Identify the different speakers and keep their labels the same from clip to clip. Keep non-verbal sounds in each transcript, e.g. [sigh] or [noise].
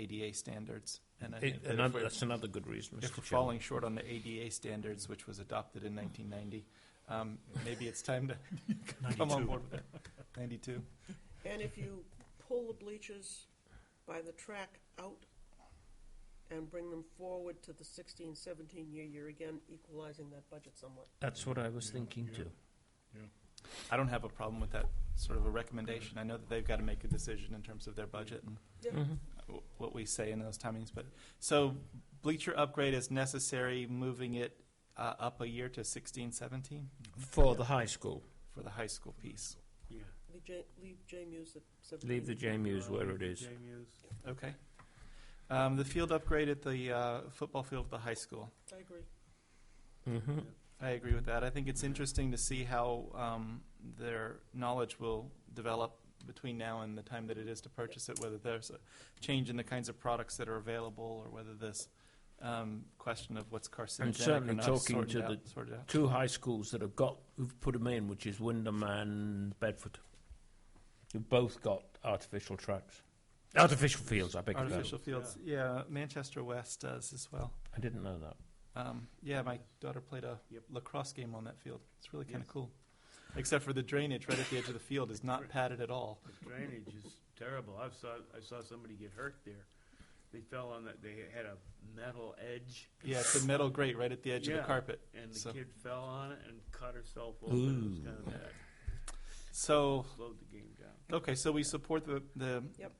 Speaker 1: ADA standards. And I
Speaker 2: It-
Speaker 1: think that if
Speaker 2: another-
Speaker 1: we're-
Speaker 2: that's another good reason,
Speaker 1: if we're
Speaker 2: Mr. Chairman.
Speaker 1: falling short on the ADA standards, which was adopted in 1990, um, maybe it's time to [laughs] come on board with that. 92.
Speaker 3: And if you pull the bleachers by the track out and bring them forward to the 16, 17 year, you're again equalizing that budget somewhat.
Speaker 2: That's what I was thinking
Speaker 4: yeah.
Speaker 2: too.
Speaker 1: I don't have a problem with that sort of a recommendation. I know that they've got to make a decision in terms of their budget and
Speaker 3: Yeah.
Speaker 2: Mhm.
Speaker 1: w- what we say in those timings, but, so bleacher upgrade is necessary, moving it uh, up a year to 16, 17
Speaker 2: For the high school,
Speaker 1: for the high school piece.
Speaker 4: Yeah.
Speaker 3: Leave J, leave J Muse at 17.
Speaker 2: leave the J Muse
Speaker 4: Uh,
Speaker 2: where it is.
Speaker 4: JMUs.
Speaker 1: Okay. Um, The field upgrade at the uh, football field at the high school.
Speaker 3: I agree.
Speaker 2: Mhm.
Speaker 1: I agree with that. I think it's interesting to see how um, their knowledge will develop between now and the time that it is to purchase it, whether there's a change in the kinds of products that are available or whether this um, question of what's carcinogenic or
Speaker 2: certainly
Speaker 1: not is
Speaker 2: talking
Speaker 1: sorted
Speaker 2: to
Speaker 1: out. sorted out.
Speaker 2: Two high schools that have got, who've put them in, which is Wyndham and Bedford. You've both got artificial tracks, artificial fields. I beg your pardon.
Speaker 1: Artificial fields. Yeah. Manchester West does as well.
Speaker 2: I didn't know that.
Speaker 1: Um, yeah, my daughter played a
Speaker 4: Yep.
Speaker 1: lacrosse game on that field. It's really kind of
Speaker 4: Yes.
Speaker 1: cool. Except for the drainage right at the edge of the field is not padded at all.
Speaker 4: The drainage is terrible. I've saw, I saw somebody get hurt there. They fell on that, they had a metal edge
Speaker 1: Yeah, it's a metal grate right at the edge of
Speaker 4: Yeah.
Speaker 1: the carpet.
Speaker 4: and the
Speaker 1: So-
Speaker 4: kid fell on it and cut herself open. It was
Speaker 2: Ooh.
Speaker 4: kind of bad.
Speaker 1: So
Speaker 4: Slowed the game down.
Speaker 1: Okay, so we support the, the
Speaker 3: Yep.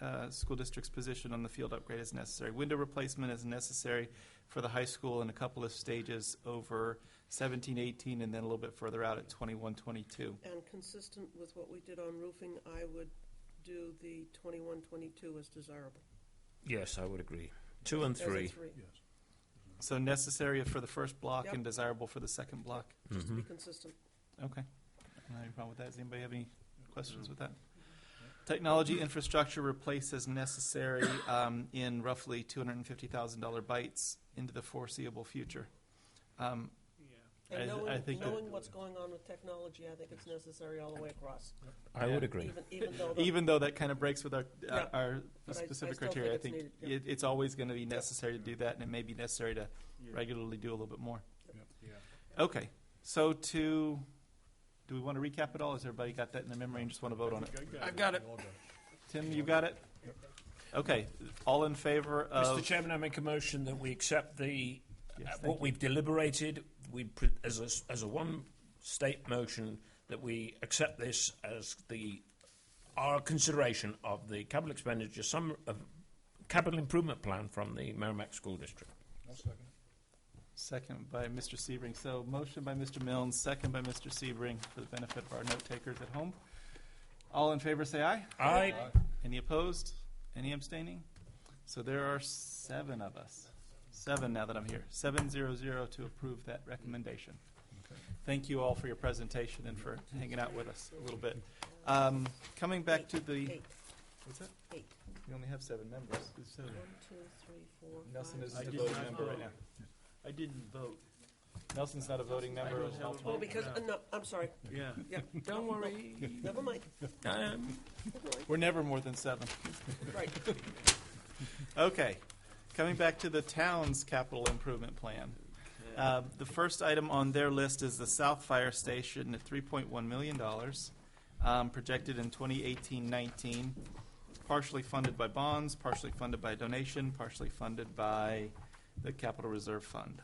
Speaker 1: uh, school district's position on the field upgrade as necessary. Window replacement is necessary for the high school in a couple of stages over 17, 18, and then a little bit further out at 21, 22.
Speaker 3: And consistent with what we did on roofing, I would do the 21, 22 as desirable.
Speaker 2: Yes, I would agree. Two and
Speaker 3: As a
Speaker 2: three.
Speaker 3: three,
Speaker 1: So necessary for the first block
Speaker 3: Yep.
Speaker 1: and desirable for the second block.
Speaker 3: just to be
Speaker 2: Mhm.
Speaker 3: consistent.
Speaker 1: Okay. No problem with that. Does anybody have any questions with that? Technology infrastructure replace as necessary um, in roughly $250,000 bites into the foreseeable future. Um,
Speaker 4: Yeah.
Speaker 1: I-
Speaker 3: And
Speaker 1: I
Speaker 3: knowing,
Speaker 1: think that-
Speaker 3: knowing what's going on with technology, I think it's necessary all the way across.
Speaker 2: I
Speaker 1: Yeah.
Speaker 2: would agree.
Speaker 3: Even, even though the
Speaker 1: even though that kind of breaks with our, uh,
Speaker 3: Yeah.
Speaker 1: our
Speaker 3: But I- I
Speaker 1: specific
Speaker 3: still think
Speaker 1: criteria, I
Speaker 3: it's
Speaker 1: think
Speaker 3: needed, yeah.
Speaker 1: it, it's always going to be necessary to do that, and it may be necessary to
Speaker 4: Yeah.
Speaker 1: regularly do a little bit more.
Speaker 4: Yeah.
Speaker 1: Okay, so to, do we want to recap it all? Has everybody got that in their memory and just want to vote on it?
Speaker 5: I've got it.
Speaker 1: Tim, you got it? Okay, all in favor
Speaker 2: Mr.
Speaker 1: of?
Speaker 2: Chairman, I make a motion that we accept the
Speaker 1: Yes,
Speaker 2: uh,
Speaker 1: thank
Speaker 2: what
Speaker 1: you.
Speaker 2: we've deliberated. We pre- as a s- as a one state motion that we accept this as the our consideration of the capital expenditure some of capital improvement plan from the Merrimack School District.
Speaker 1: Second by Mr. Sebring. So motion by Mr. Milnes, second by Mr. Sebring for the benefit of our note takers at home. All in favor, say aye.
Speaker 2: I
Speaker 1: Any opposed? Any abstaining? So there are seven of us. Seven now that I'm here. Seven zero zero to approve that recommendation. Thank you all for your presentation and for hanging out with us a little bit. Um, coming back to the,
Speaker 3: eight,
Speaker 1: what's that?
Speaker 3: eight.
Speaker 1: We only have seven members. There's seven.
Speaker 3: One, two, three, four, five,
Speaker 1: Nelson is
Speaker 4: I
Speaker 1: a
Speaker 4: did
Speaker 1: voting
Speaker 4: not
Speaker 1: member right
Speaker 4: vote.
Speaker 1: now.
Speaker 4: I didn't vote.
Speaker 1: Nelson's not a voting
Speaker 4: I
Speaker 1: member.
Speaker 4: don't have a
Speaker 3: Oh,
Speaker 4: vote.
Speaker 3: because, uh, no, I'm sorry,
Speaker 4: Yeah.
Speaker 2: don't worry.
Speaker 1: [laughs]
Speaker 3: never mind,
Speaker 2: Um,
Speaker 3: never mind.
Speaker 1: We're never more than seven.
Speaker 3: Right,
Speaker 1: Okay, coming back to the town's capital improvement plan. Uh, The first item on their list is the South Fire Station at $3.1 million, um, projected in 2018-19, partially funded by bonds, partially funded by donation, partially funded by the Capital Reserve Fund.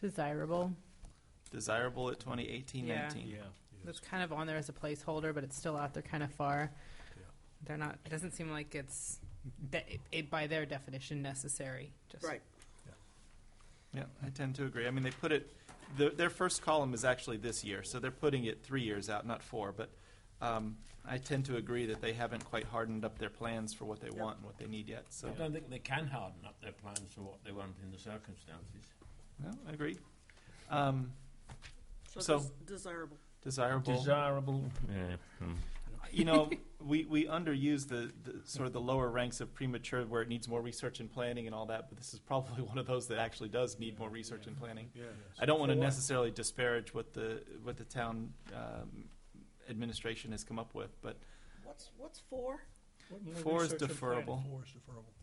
Speaker 5: Desirable.
Speaker 1: Desirable at 2018-19.
Speaker 4: Yeah.
Speaker 5: That's kind of on there as a placeholder, but it's still out there kind of far.
Speaker 4: Yeah.
Speaker 5: They're not, it doesn't seem like it's, de- it, it, by their definition, necessary. Just
Speaker 3: right.
Speaker 1: Yeah, I tend to agree. I mean, they put it, the- their first column is actually this year, so they're putting it three years out, not four. But um, I tend to agree that they haven't quite hardened up their plans for what they want and what they need yet, so.
Speaker 2: I don't think they can harden up their plans to what they want in the circumstances.
Speaker 1: No, agreed. Um, So-
Speaker 3: So des- desirable.
Speaker 1: desirable.
Speaker 2: Desirable. Yeah. hmm.
Speaker 1: you know, we, we underuse the, the sort of the lower ranks of premature where it needs more research and planning and all that, but this is probably [laughs] one of those that actually does need more research and planning.
Speaker 4: Yeah.
Speaker 1: I don't want to necessarily disparage what the what the town um, administration has come up with, but
Speaker 3: What's, what's four?
Speaker 1: four is deferrable.
Speaker 6: Four is deferrable.